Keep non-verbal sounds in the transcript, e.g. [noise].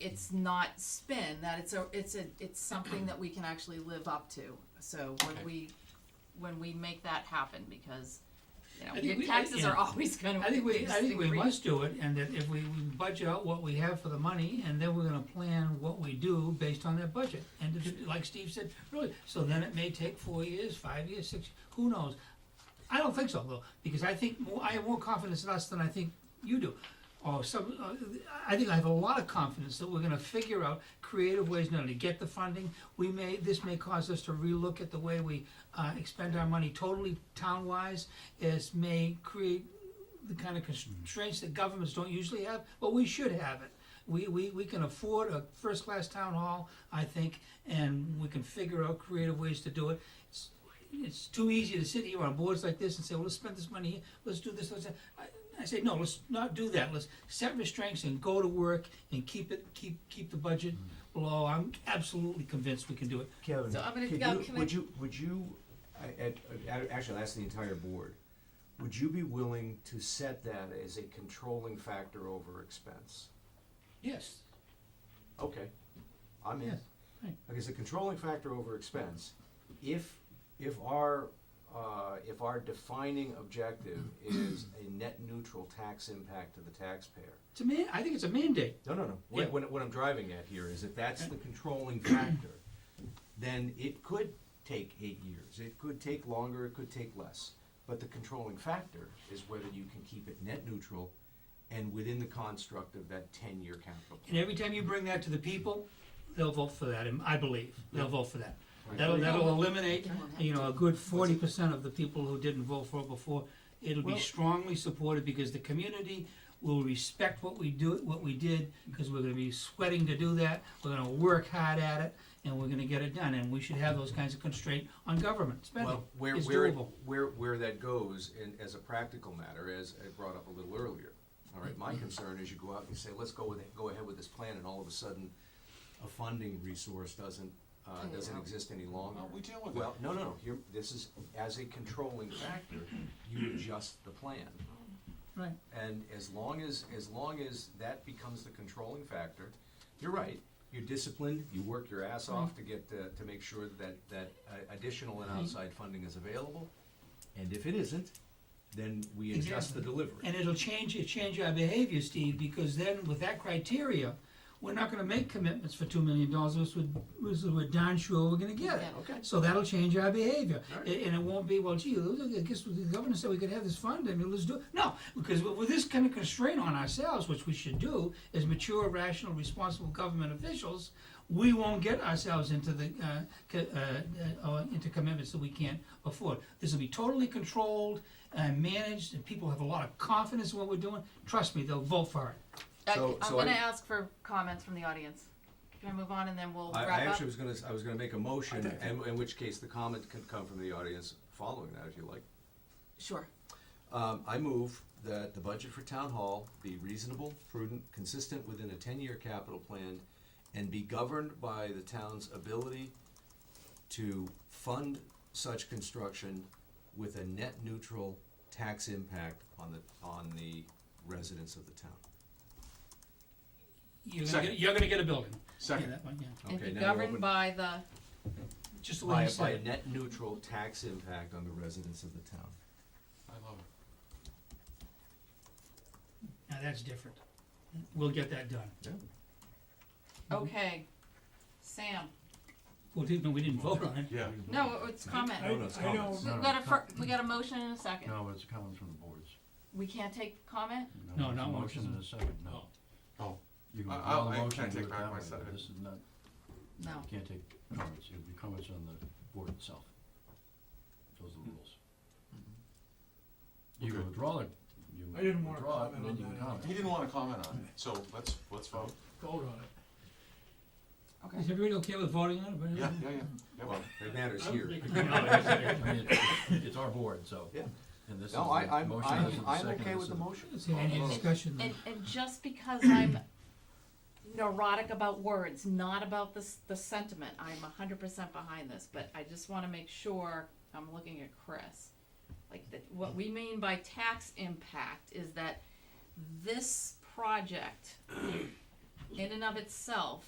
it's not spin, that it's a, it's a, it's something that we can actually live up to. So Okay. when we, when we make that happen, because, you I know, think your we- taxes yeah. are always gonna I think we, I think we increase. must do it, and that if we we budget out what we have for the money, and then we're gonna plan what we do based on that budget. And if- like Steve said, really, so then it may take four years, five years, six, who knows? I don't think so though, because I think more, I have more confidence in us than I think you do. Or some, uh, I think I have a lot of confidence that we're gonna figure out creative ways not only to get the funding. We may, this may cause us to relook at the way we, uh, expend our money totally town-wise. It may create the kind of constraints that governments don't usually have, but we should have it. We, we, we can afford a first-class town hall, I think, and we can figure out creative ways to do it. It's- It's too easy to sit here on boards like this and say, well, let's spend this money here, let's do this, let's, that." I, I say, no, let's not do that, let's set restraints and go to work and keep it, keep, keep the budget below, I'm absolutely convinced we can do it. Kevin, So I'm gonna- could yeah, you- can I- would you, would you, I, I- I- actually, I'll ask the entire board, would you be willing to set that as a controlling factor over expense? Yes. Okay, I'm in. Yes, right. Okay, so controlling factor over expense, if, if our, uh, if our defining objective is a net neutral tax impact to the taxpayer, It's a man, I think it's a mandate. no, no, no. What, Yeah. what, what I'm driving at here is if that's the controlling factor, then it could take eight years, it could take longer, it could take less. But the controlling factor is whether you can keep it net neutral and within the construct of that ten-year capital. plan. And every time you bring that to the people, they'll vote for that, and I believe, they'll vote for that. Right. That'll, that'll Right. eliminate, They won't have you know, a good forty percent of the people who didn't vote for it before. It'll be Well- strongly supported because the community will respect what we do, what we did, because we're gonna be sweating to do that, we're gonna work hard at it, and we're gonna get it done, and we should have those kinds of constraint on government spending. Well, where, It's where, it- doable. where, where that goes, and as a practical matter, as I brought up a little earlier, all right, my concern is you go out and say, let's go with, it- go ahead with this plan, and all of a sudden, a funding resource doesn't, uh, Hang it doesn't out. exist any longer. Well, we deal with Well, no, no, no, here, this is, as a controlling factor, you adjust the plan. Right. And as long as, as long as that becomes the controlling factor, you're right, you're disciplined, you work your ass off to get, uh, to make sure that, that uh, additional and outside funding is available. And if it isn't, then we adjust the Exactly. delivery. And it'll change, it change our behavior, Steve, because then with that criteria, we're not gonna make commitments for two million dollars, which would, which we're darn sure we're gonna get it. Yeah. Okay. So that'll change our behavior, Alright. A- and it won't be, well, gee, look, I guess the governor said we could have this fund, I mean, let's do it. No, because with with this kind of constraint on ourselves, which we should do, as mature, rational, responsible government officials, we won't get ourselves into the, uh, co- uh, uh, uh, into commitments that we can't afford. This will be totally controlled and managed, and people have a lot of confidence in what we're doing, trust me, they'll vote for it. I- So- I'm so I- gonna ask for comments from the audience. Can I move on and then we'll I, wrap up? I actually was gonna, s- I was gonna make a motion, and, in which case the comment could come from the audience following that, if you like. Sure. Um, I move that the budget for town hall be reasonable, prudent, consistent within a ten-year capital plan, and be governed by the town's ability to fund such construction with a net neutral tax impact on the, on the residents of the town. You're gonna Second. get, you're gonna get a building. Second. Yeah, that one, yeah, And Okay, be now we're governed open- by the, just the way By, you by said a it. net neutral tax impact on the residents of the town. I love it. Now, that's different. We'll get that done. Mm-hmm. okay, Sam, Well, didn't, no, we didn't vote on it. Yeah. Mm-hmm. no, it's comment. I, I No, no, it's comments. don't, We got a fir- we got a motion and a second. no, it's comments from the boards. We can't take comment? No, it's not a one Motion from- and a second, no. Oh. You can I- file I'll- a I motion can't and take do it back that my way, but second. This is not, No. you can't take comments, it'll be comments on the board itself. Those are the rules. You Okay. can withdraw it, you I didn't wanna withdraw it, and comment on then you can that. comment. He didn't wanna comment on it, so let's, let's vote. vote on it. Is everybody okay with voting on it? Yeah, yeah, yeah, yeah, Well, it matters I here. don't think- I mean, it's, it's our board, so, Yeah. and this is the No, I, I'm, motion, I'm, this is the I'm second, okay this with is the motion. Is there any Oh, discussion? And, and just because I'm [clears throat] neurotic about words, not about this, the sentiment, I'm a hundred percent behind this, but I just wanna make sure, I'm looking at Chris. Like, that, what we mean by tax impact is that this project in and of itself